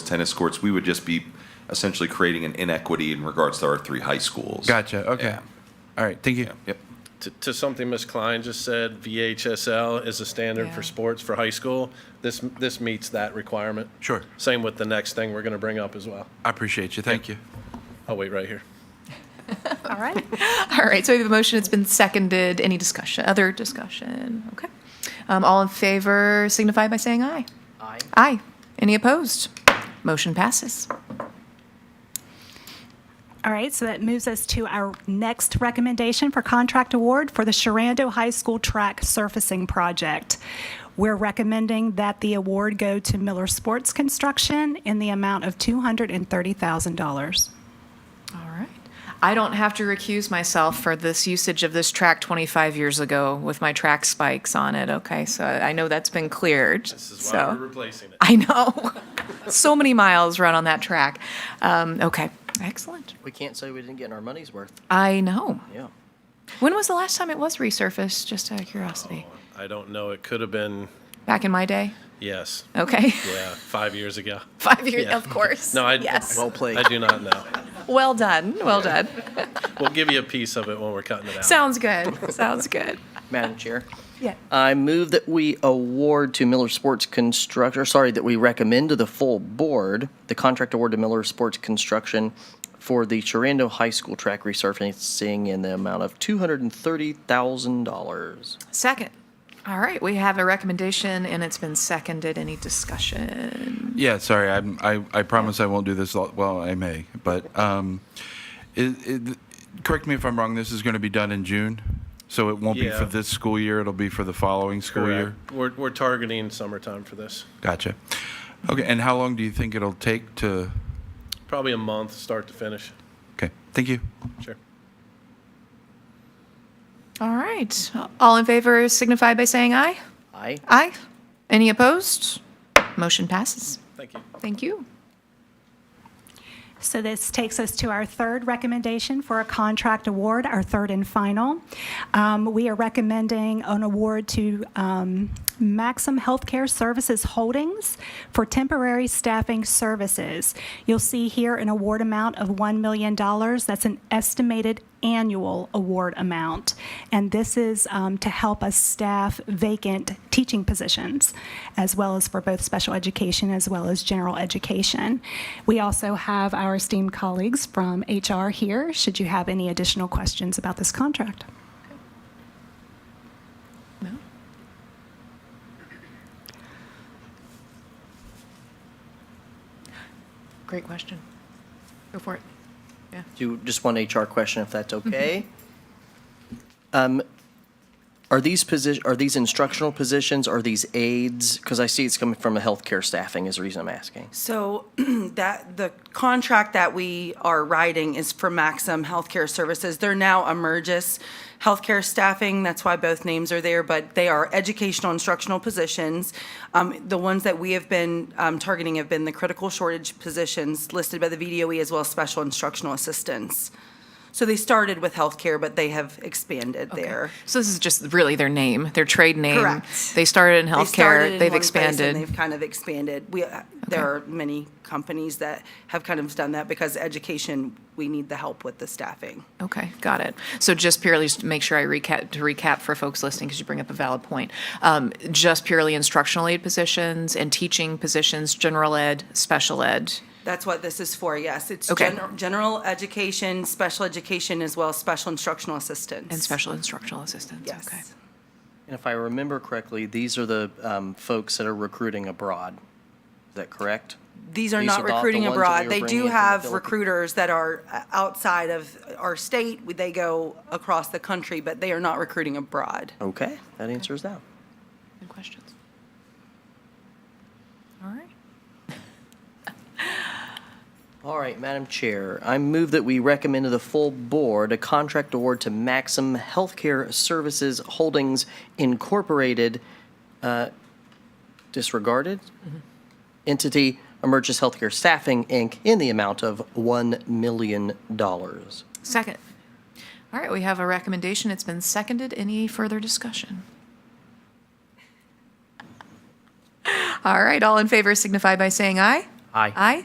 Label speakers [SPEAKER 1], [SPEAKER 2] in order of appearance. [SPEAKER 1] tennis courts, we would just be essentially creating an inequity in regards to our three high schools.
[SPEAKER 2] Gotcha. Okay.
[SPEAKER 1] Yeah.
[SPEAKER 2] All right. Thank you.
[SPEAKER 1] Yep.
[SPEAKER 3] To- To something Ms. Klein just said, VHSL is a standard for
[SPEAKER 4] Yeah.
[SPEAKER 3] sports for high school. This, this meets that requirement.
[SPEAKER 2] Sure.
[SPEAKER 3] Same with the next thing we're going to bring up as well.
[SPEAKER 2] I appreciate you. Thank you.
[SPEAKER 3] I'll wait right here.
[SPEAKER 4] All right. All right, so we have a motion, it's been seconded. Any discussion, other discussion? Okay. Um, All in favor signify by saying aye. Aye. Aye. Any opposed? Motion passes.
[SPEAKER 5] All right, so that moves us to our next recommendation for contract award for the Sharando High School Track Surfacing Project. We're recommending that the award go to Miller Sports Construction in the amount of $230,000.
[SPEAKER 4] All right. I don't have to recuse myself for this usage of this track 25 years ago with my track spikes on it, okay? So I know that's been cleared, so.
[SPEAKER 3] This is why we're replacing it.
[SPEAKER 4] I know. So many miles run on that track. Um, Okay, excellent.
[SPEAKER 6] We can't say we didn't get our money's worth.
[SPEAKER 4] I know.
[SPEAKER 6] Yeah.
[SPEAKER 4] When was the last time it was resurfaced? Just out of curiosity.
[SPEAKER 3] I don't know, it could have been,
[SPEAKER 4] Back in my day.
[SPEAKER 3] yes,
[SPEAKER 4] Okay.
[SPEAKER 3] yeah, five years ago.
[SPEAKER 4] Five years,
[SPEAKER 3] Yeah.
[SPEAKER 4] of course.
[SPEAKER 3] No, I.
[SPEAKER 4] yes.
[SPEAKER 6] Well played.
[SPEAKER 3] I do not know.
[SPEAKER 4] Well done. Well done.
[SPEAKER 3] We'll give you a piece of it when we're cutting it out.
[SPEAKER 4] Sounds good. Sounds good.
[SPEAKER 6] Madam Chair,
[SPEAKER 4] Yeah.
[SPEAKER 6] I move that we award to Miller Sports Construction, sorry, that we recommend to the full board the contract award to Miller Sports Construction for the Chirando High School track resurfacing in the amount of $230,000.
[SPEAKER 4] Second. All right. We have a recommendation, and it's been seconded. Any discussion?
[SPEAKER 2] Yeah. Sorry. I'm, I I promise I won't do this. lo- Well, I may, but um, it, it, correct me if I'm wrong. This is going to be done in June, so it won't be
[SPEAKER 3] Yeah.
[SPEAKER 2] for this school year. It'll be for the following school year.
[SPEAKER 3] Correct. We're, we're targeting summertime for this.
[SPEAKER 2] Gotcha. Okay. And how long do you think it'll take to?
[SPEAKER 3] Probably a month, start to finish.
[SPEAKER 2] Okay. Thank you.
[SPEAKER 3] Sure.
[SPEAKER 4] All right. All in favor signify by saying aye.
[SPEAKER 6] Aye.
[SPEAKER 4] Aye. Any opposed? Motion passes.
[SPEAKER 3] Thank you.
[SPEAKER 4] Thank you.
[SPEAKER 5] So this takes us to our third recommendation for a contract award, our third and final. Um, We are recommending an award to um, Maxim Healthcare Services Holdings for temporary staffing services. You'll see here an award amount of $1 million. That's an estimated annual award amount. And this is um, to help us staff vacant teaching positions, as well as for both special education as well as general education. We also have our esteemed colleagues from HR here, should you have any additional questions about this contract.
[SPEAKER 4] No? Great question. Go for it. Yeah.
[SPEAKER 6] Do just one HR question, if that's okay. Um, Are these position, are these instructional positions, are these aides? Because I see it's coming from a healthcare staffing is the reason I'm asking.
[SPEAKER 7] So that, the contract that we are writing is for Maxim Healthcare Services. They're now Emergis Healthcare Staffing, that's why both names are there, but they are educational instructional positions. Um, The ones that we have been um, targeting have been the critical shortage positions listed by the VDOE E as well as special instructional assistants. So they started with healthcare, but they have expanded there.
[SPEAKER 4] So this is just really their name, their trade name.
[SPEAKER 7] Correct.
[SPEAKER 4] They started in
[SPEAKER 7] They started
[SPEAKER 4] healthcare,
[SPEAKER 7] in
[SPEAKER 4] they've
[SPEAKER 7] one place and
[SPEAKER 4] expanded.
[SPEAKER 7] They've kind of expanded. We, uh, there are many companies that have kind of done that because education, we need the help with the staffing.
[SPEAKER 4] Okay, got it. So just purely, just to make sure I recap, to recap for folks listening, because you bring up a valid point. Um, Just purely instructional aid positions and teaching positions, general ed, special ed.
[SPEAKER 7] That's what this is for, yes. It's
[SPEAKER 4] Okay.
[SPEAKER 7] gener- general education, special education, as well as special instructional assistance.
[SPEAKER 4] And special instructional assistance,
[SPEAKER 7] Yes.
[SPEAKER 4] okay.
[SPEAKER 6] And if I remember correctly, these are the um, folks that are recruiting abroad. Is that correct?
[SPEAKER 7] These are
[SPEAKER 6] These
[SPEAKER 7] not
[SPEAKER 6] are not the
[SPEAKER 7] recruiting
[SPEAKER 6] ones that we
[SPEAKER 7] abroad.
[SPEAKER 6] were
[SPEAKER 7] They
[SPEAKER 6] bringing
[SPEAKER 7] do
[SPEAKER 6] in from the
[SPEAKER 7] have
[SPEAKER 6] Philippines.
[SPEAKER 7] recruiters that are uh, outside of our state. They go across the country, but they are not recruiting abroad.
[SPEAKER 6] Okay, that answers that.
[SPEAKER 4] Any questions? All right.
[SPEAKER 6] All right, Madam Chair, I move that we recommend to the full board a contract award to Maxim Healthcare Services Holdings Incorporated, uh, disregarded, entity Emergis Healthcare Staffing, Inc., in the amount of $1 million.
[SPEAKER 4] Second. All right, we have a recommendation. It's been seconded. Any further discussion? All right, all in favor signify by saying aye.
[SPEAKER 6] Aye.
[SPEAKER 4] Aye.